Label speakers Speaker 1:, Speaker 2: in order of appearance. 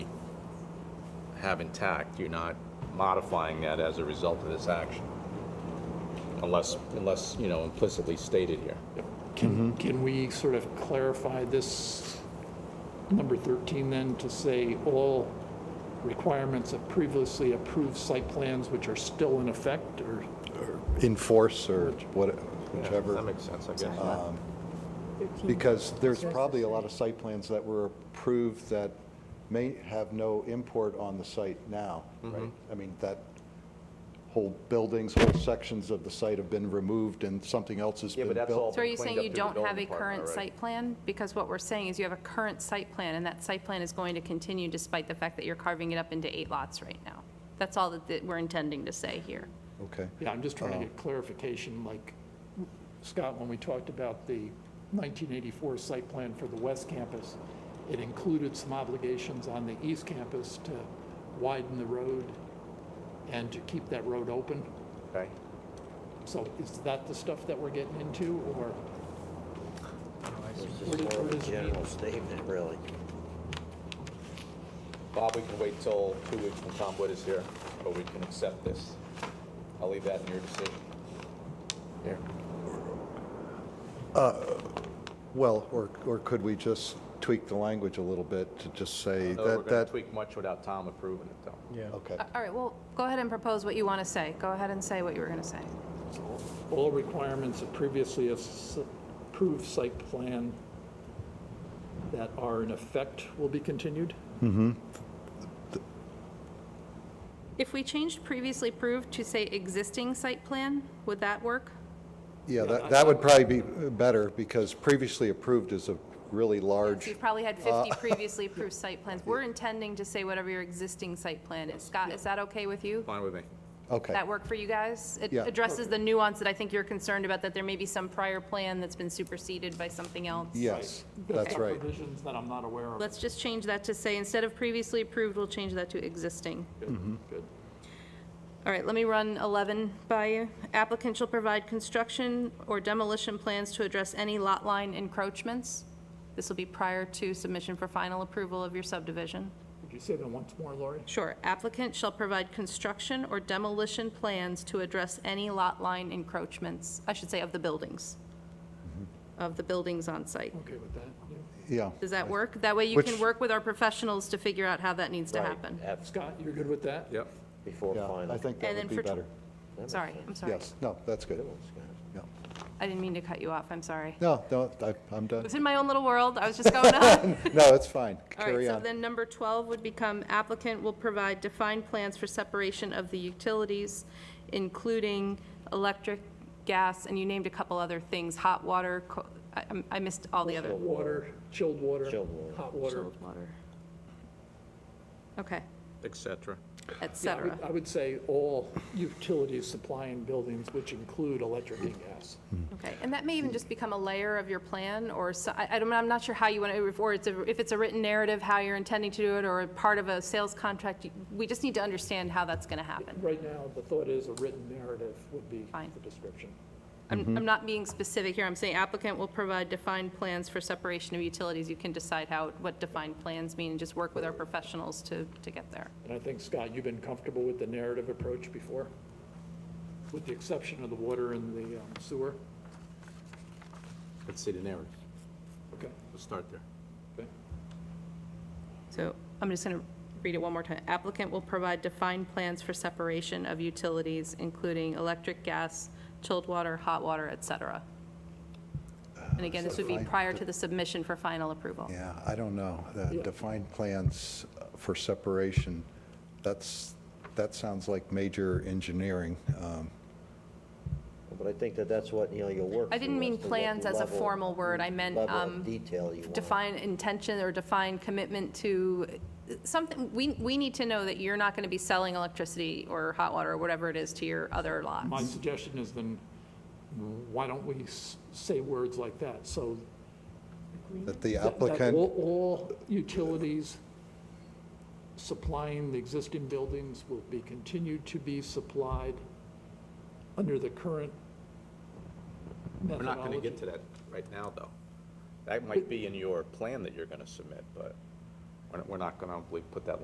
Speaker 1: have intact. You're not modifying that as a result of this action. Unless, unless, you know, implicitly stated here.
Speaker 2: Can, can we sort of clarify this number 13 then to say all requirements of previously approved site plans which are still in effect or?
Speaker 3: enforce or what,
Speaker 1: That
Speaker 3: whichever,
Speaker 1: makes sense, I guess.
Speaker 3: because there's probably a lot of site plans that were approved that may have no import on the site now,
Speaker 1: Mm-hmm.
Speaker 3: right? I mean, that whole buildings, whole sections of the site have been removed and something else has
Speaker 1: Yeah,
Speaker 3: been
Speaker 1: but
Speaker 3: built.
Speaker 1: that's all-
Speaker 4: So are you
Speaker 1: Cleaned
Speaker 4: saying
Speaker 1: up
Speaker 4: you
Speaker 1: through the
Speaker 4: don't have a
Speaker 1: building department
Speaker 4: current
Speaker 1: already.
Speaker 4: site plan? Because what we're saying is you have a current site plan, and that site plan is going to continue despite the fact that you're carving it up into eight lots right now. That's all that- that we're intending to say here.
Speaker 3: Okay,
Speaker 2: Yeah, I'm just trying to get clarification, like, Scott, when we talked about the 1984 site plan for the West Campus, it included some obligations on the East Campus to widen the road and to keep that road open.
Speaker 1: Okay.
Speaker 2: So is that the stuff that we're getting into, or?
Speaker 5: It's just more of a general statement, really.
Speaker 1: Bob, we can wait till two weeks when Tom Wood is here, or we can accept this. I'll leave that in your decision. Here.
Speaker 3: well, or, or could we just tweak the language a little bit to just say
Speaker 1: Although Oh, we're
Speaker 3: that,
Speaker 1: going
Speaker 3: that,
Speaker 1: to tweak much without Tom approving it, though.
Speaker 3: okay.
Speaker 4: A- Uh, All right, well, go ahead and propose what you want to say. Go ahead and say what you were going to say.
Speaker 2: All requirements of previously as- approved site plan that are in effect will be continued?
Speaker 4: If we changed previously approved to say existing site plan, would that work?
Speaker 3: Yeah, that, that would probably be better, because previously approved is a really large.
Speaker 4: You've probably had
Speaker 1: Uh,
Speaker 4: 50 previously approved site plans. We're intending to say whatever your existing site plan is. Scott, is that okay with you?
Speaker 1: Fine with me.
Speaker 3: Okay.
Speaker 4: That work for you guys? It
Speaker 3: Yeah.
Speaker 4: addresses the nuance that I think you're concerned about, that there may be some prior plan that's been superseded by something else.
Speaker 3: Yes, that's
Speaker 2: Some
Speaker 3: right.
Speaker 2: Provisions that I'm not aware of.
Speaker 4: Let's just change that to say, instead of previously approved, we'll change that to existing.
Speaker 2: Good.
Speaker 4: All right, let me run 11 by you. Applicant shall provide construction or demolition plans to address any lot line encroachments. This will be prior to submission for final approval of your subdivision.
Speaker 2: Could you say that once more, Lori?
Speaker 4: Sure, applicant shall provide construction or demolition plans to address any lot line encroachments, I should say of the buildings,
Speaker 3: Mm-hmm.
Speaker 4: of the buildings on site.
Speaker 2: Okay with that? yeah.
Speaker 3: Yeah,
Speaker 4: Does that work? That way you
Speaker 3: Mm-hmm. Which-
Speaker 4: can work with our professionals to figure out how that needs to
Speaker 5: Right.
Speaker 4: happen.
Speaker 5: Have-
Speaker 2: Scott, you're good with that?
Speaker 1: Yep.
Speaker 5: Before
Speaker 3: yeah,
Speaker 5: final.
Speaker 3: I think that
Speaker 4: And
Speaker 3: would
Speaker 4: then
Speaker 3: be
Speaker 4: for, tw-
Speaker 3: better.
Speaker 4: sorry, I'm sorry.
Speaker 3: Yes, no, that's good. Yeah.
Speaker 4: I didn't mean to cut you off, I'm sorry. I
Speaker 3: No, no, I- I'm done.
Speaker 4: was in my own little world, I was just going on.
Speaker 3: No, it's fine.
Speaker 4: All right,
Speaker 3: Carry
Speaker 4: so
Speaker 3: on.
Speaker 4: then number 12 would become applicant will provide defined plans for separation of the utilities, including electric, gas, and you named a couple other things, hot water, co- I- I'm- I missed all the other.
Speaker 2: Water, chilled water.
Speaker 5: Chilled water.
Speaker 2: Hot water.
Speaker 4: Chilled water. Okay,
Speaker 1: Et cetera.
Speaker 4: et
Speaker 2: Yeah, I would-
Speaker 4: cetera.
Speaker 2: I would say all utilities supplying buildings, which include electric and gas.
Speaker 4: Okay, and that may even just become a layer of your plan, or, so- I I don't, I'm not sure how you want to, or it's, a- if it's a written narrative, how you're intending to do it, or a part of a sales contract, you- we just need to understand how that's going to happen.
Speaker 2: Right now, the thought is a written narrative would be
Speaker 4: Fine.
Speaker 2: the description.
Speaker 4: I'm, I'm not being specific here, I'm saying applicant will provide defined plans for separation of utilities. You can decide how, what defined plans mean, and just work with our professionals to, to get there.
Speaker 2: And I think, Scott, you've been comfortable with the narrative approach before, with the exception of the water and the um, sewer?
Speaker 1: Let's see the narrative.
Speaker 2: Okay.
Speaker 1: Let's start there.
Speaker 2: okay.
Speaker 4: So I'm just going to read it one more time. Applicant will provide defined plans for separation of utilities, including electric, gas, chilled water, hot water, et cetera. And again, this would be
Speaker 3: Defined-
Speaker 4: prior to the submission for final approval.
Speaker 3: Yeah, I don't know. The
Speaker 2: Yeah.
Speaker 3: Defined plans uh, for separation, that's, that sounds like major engineering. Um,
Speaker 5: But I think that that's what, you know, you'll work.
Speaker 4: I didn't
Speaker 5: through
Speaker 4: mean
Speaker 5: as to what
Speaker 4: plans as a
Speaker 5: level-
Speaker 4: formal word. I meant,
Speaker 5: level of
Speaker 4: um,
Speaker 5: Detail you want.
Speaker 4: define intention or define commitment to something, we, we need to know that you're not going to be selling electricity or hot water or whatever it is to your other
Speaker 2: My
Speaker 4: lots.
Speaker 2: suggestion is then, why don't we s- say words like that? So
Speaker 3: That the
Speaker 2: that- that
Speaker 3: applicant,
Speaker 2: all- All utilities supplying the existing buildings will be continued to be supplied under the current
Speaker 1: We're not going to
Speaker 2: methodology.
Speaker 1: get to that right now, though. That might be in your plan that you're going to submit, but we're- we're not going to, we put that